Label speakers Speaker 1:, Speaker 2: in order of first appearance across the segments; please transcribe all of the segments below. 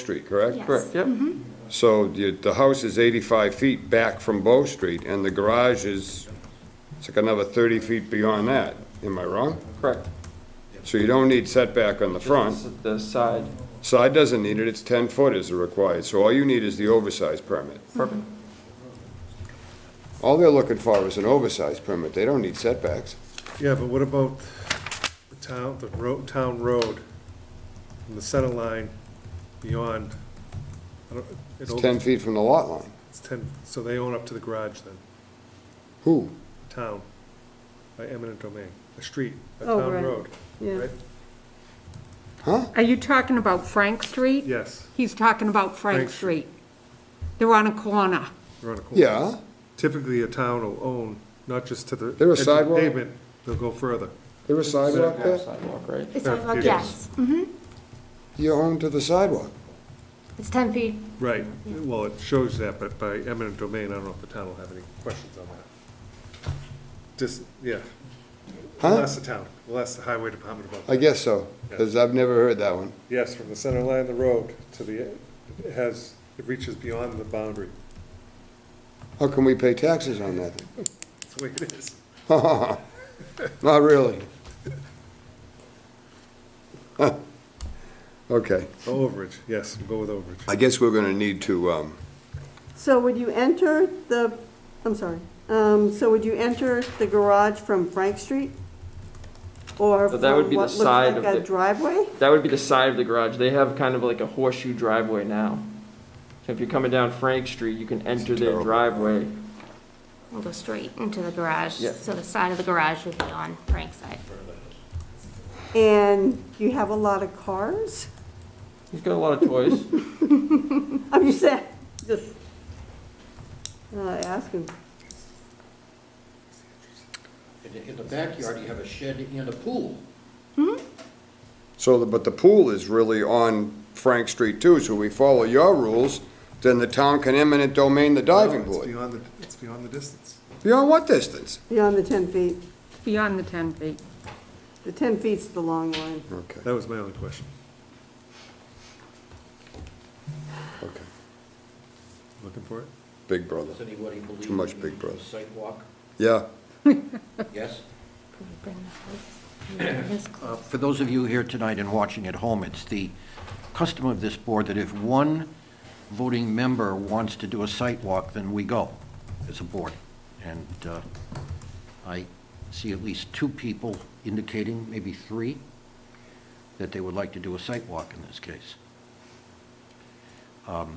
Speaker 1: Street, correct?
Speaker 2: Yes.
Speaker 3: Correct, yep.
Speaker 1: So the, the house is 85 feet back from Bow Street, and the garage is, it's like another 30 feet beyond that. Am I wrong?
Speaker 3: Correct.
Speaker 1: So you don't need setback on the front.
Speaker 3: The side,
Speaker 1: Side doesn't need it, it's 10 foot is required, so all you need is the oversized permit.
Speaker 3: perfect.
Speaker 1: All they're looking for is an oversized permit, they don't need setbacks.
Speaker 4: Yeah, but what about the town, the road, town road, and the center line beyond? I don't- it
Speaker 1: It's
Speaker 4: opens-
Speaker 1: 10 feet from the lot line.
Speaker 4: It's ten, so they own up to the garage then,
Speaker 1: Who?
Speaker 4: town, by eminent domain, a street, a
Speaker 5: Oh,
Speaker 4: town
Speaker 5: right.
Speaker 4: road,
Speaker 5: Yeah.
Speaker 4: right?
Speaker 1: Huh?
Speaker 5: Are you talking about Frank Street?
Speaker 4: Yes,
Speaker 5: He's talking about Frank
Speaker 4: Frank
Speaker 5: Street. They're on a corner.
Speaker 4: you're on a corner.
Speaker 1: Yeah,
Speaker 4: Typically, a town will own, not just to the.
Speaker 1: There a
Speaker 4: edge of
Speaker 1: sidewalk?
Speaker 4: Pavement, they'll go further.
Speaker 1: there a sidewalk there?
Speaker 3: Sidewalk, right?
Speaker 2: It's
Speaker 4: Yeah,
Speaker 2: sidewalk,
Speaker 4: it
Speaker 2: yes.
Speaker 1: You own to the sidewalk.
Speaker 2: It's 10 feet.
Speaker 4: Right, well, it shows that, but by eminent domain, I don't know if the town will have any questions on that. Just, yeah.
Speaker 1: Huh?
Speaker 4: Unless the town, unless the highway department about
Speaker 1: I
Speaker 4: that.
Speaker 1: guess so, because I've never heard that one.
Speaker 4: Yes, from the center line of the road to the, it has, it reaches beyond the boundary.
Speaker 1: How can we pay taxes on that? then?
Speaker 4: That's the way it is.
Speaker 1: Not really. Huh. Okay,
Speaker 4: Oh, Overage, yes, we'll go with overage.
Speaker 1: I guess we're gonna need to, um,
Speaker 6: So would you enter the, I'm sorry, um, so would you enter the garage from Frank Street? Or
Speaker 3: So
Speaker 6: from
Speaker 3: that would
Speaker 6: what
Speaker 3: be the
Speaker 6: looks
Speaker 3: side of
Speaker 6: like a
Speaker 3: the-
Speaker 6: driveway?
Speaker 3: That would be the side of the garage. They have kind of like a horseshoe driveway now. So if you're coming down Frank Street, you can enter their
Speaker 1: terrible.
Speaker 3: driveway.
Speaker 2: We'll go straight into the garage,
Speaker 3: Yeah.
Speaker 2: so the side of the garage would be on Frank's side.
Speaker 6: And you have a lot of cars?
Speaker 3: He's got a lot of toys.
Speaker 6: I'm just saying, just, uh, asking.
Speaker 7: In the- In the backyard, you have a shed and a pool.
Speaker 1: so, the- but the pool is really on Frank Street too, so we follow your rules, then the town can eminent domain the diving
Speaker 4: It's
Speaker 1: board.
Speaker 4: beyond the, it's beyond the distance.
Speaker 1: Beyond what distance?
Speaker 6: Beyond the 10 feet.
Speaker 5: Beyond the 10 feet.
Speaker 6: The 10 feet's the long line.
Speaker 1: Okay,
Speaker 4: That was my only question.
Speaker 1: okay.
Speaker 4: Looking for it?
Speaker 1: Big brother.
Speaker 7: Does anybody believe?
Speaker 1: Too much
Speaker 7: in
Speaker 1: Big Brother.
Speaker 7: Sidewalk,
Speaker 1: Yeah,
Speaker 7: yes?
Speaker 2: Can we bring the house? Yes,
Speaker 7: Uh, For those of you here tonight and watching at home, it's the custom of this board that if one voting member wants to do a site walk, then we go as a board. And uh, I see at least two people indicating, maybe three, that they would like to do a site walk in this case. Um,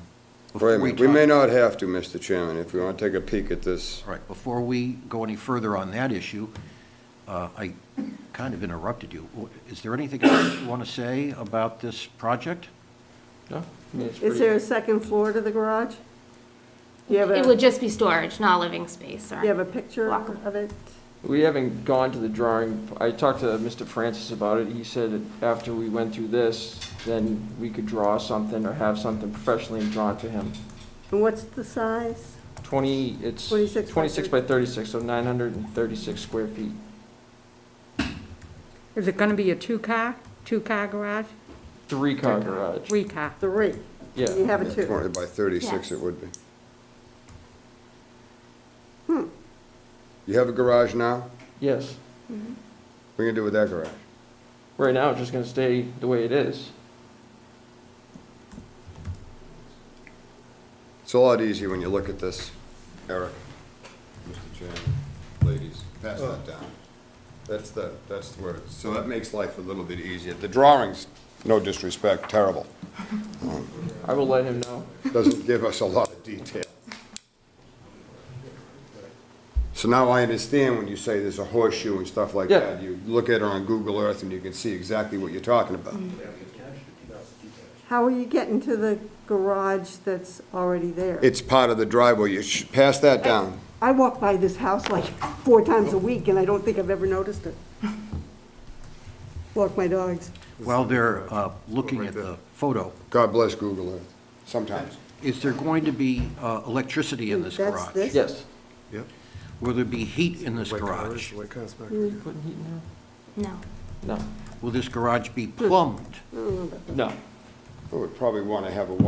Speaker 1: wait a
Speaker 7: before
Speaker 1: minute, we may not
Speaker 7: talk-
Speaker 1: have to, Mr. Chairman, if we wanna take a peek at this.
Speaker 7: All right, before we go any further on that issue, uh, I kind of interrupted you. Is there anything else you want to say about this project?
Speaker 3: No? I mean, it's
Speaker 6: Is
Speaker 3: pretty-
Speaker 6: there a second floor to the garage? Do you have a,
Speaker 2: It
Speaker 6: do
Speaker 2: would just be storage, not living space, or.
Speaker 6: you have a picture
Speaker 2: Walkable.
Speaker 6: of it?
Speaker 3: We haven't gone to the drawing. I talked to Mr. Francis about it. He said that after we went through this, then we could draw something or have something professionally drawn to him.
Speaker 6: And what's the size?
Speaker 3: Twenty, it's
Speaker 6: 26 by
Speaker 3: twenty-six by thirty-six, so nine hundred and thirty-six square feet.
Speaker 5: Is it going to be a two-car, two-car garage?
Speaker 3: Three-car garage,
Speaker 5: Three-car.
Speaker 6: Three. You
Speaker 3: yeah.
Speaker 6: have a
Speaker 1: Yeah,
Speaker 6: two.
Speaker 1: Twenty by thirty-six it
Speaker 2: Yes.
Speaker 1: would be.
Speaker 6: Hmm.
Speaker 1: You have a garage now?
Speaker 3: Yes.
Speaker 1: What are you gonna do with that garage?
Speaker 3: Right now, it's just gonna stay the way it is.
Speaker 1: It's a lot easier when you look at this, Eric. Mr. Chairman, ladies, pass that down. That's the, that's the word. So that makes life a little bit easier. The drawings, no disrespect, terrible.
Speaker 3: I will let him know.
Speaker 1: Doesn't give us a lot of detail. So now I understand when you say there's a horseshoe and stuff like
Speaker 3: Yeah.
Speaker 1: that. You look at it on Google Earth and you can see exactly what you're talking about.
Speaker 6: How are you getting to the garage that's already there?
Speaker 1: It's part of the driveway. You should pass that down.
Speaker 6: I walk by this house like four times a week, and I don't think I've ever noticed it. Walk my dogs.
Speaker 7: While they're uh, looking at the photo,
Speaker 1: God bless Google Earth, sometimes.
Speaker 7: is there going to be uh, electricity in this
Speaker 6: That's
Speaker 7: garage?
Speaker 6: this?
Speaker 3: Yes.
Speaker 4: Yep.
Speaker 7: Will there be heat in this
Speaker 4: White cars,
Speaker 7: garage?
Speaker 4: White cars back
Speaker 3: Putting heat in
Speaker 2: No.
Speaker 3: there?
Speaker 7: Will this garage be plumbed?
Speaker 3: No, no.
Speaker 1: I would probably want to have a